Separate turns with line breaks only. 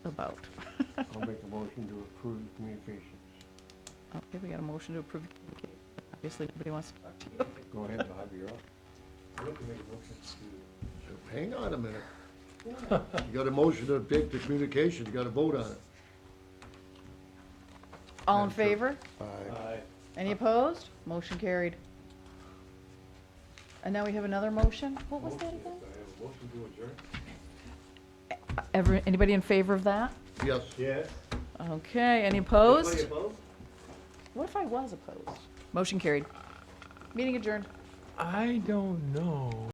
about.
I'll make a motion to approve communications.
Oh, Okay, we got a motion to approve. Obviously, nobody wants to talk to you.
Go ahead, Bob, you're up.
I'd like to make a motion to,
Hang on a minute. You got a motion to take the communication, you gotta vote on it.
All in
Madam Chair. Uh,
favor?
I,
Any opposed? Motion carried. And now we have another motion? What was
motion, I
that
have
again?
a motion to adjourn.
Ever, Uh, anybody in favor of that?
Yes.
Yes.
Okay, any opposed? What if I was opposed? Motion carried. Meeting adjourned.
I don't know.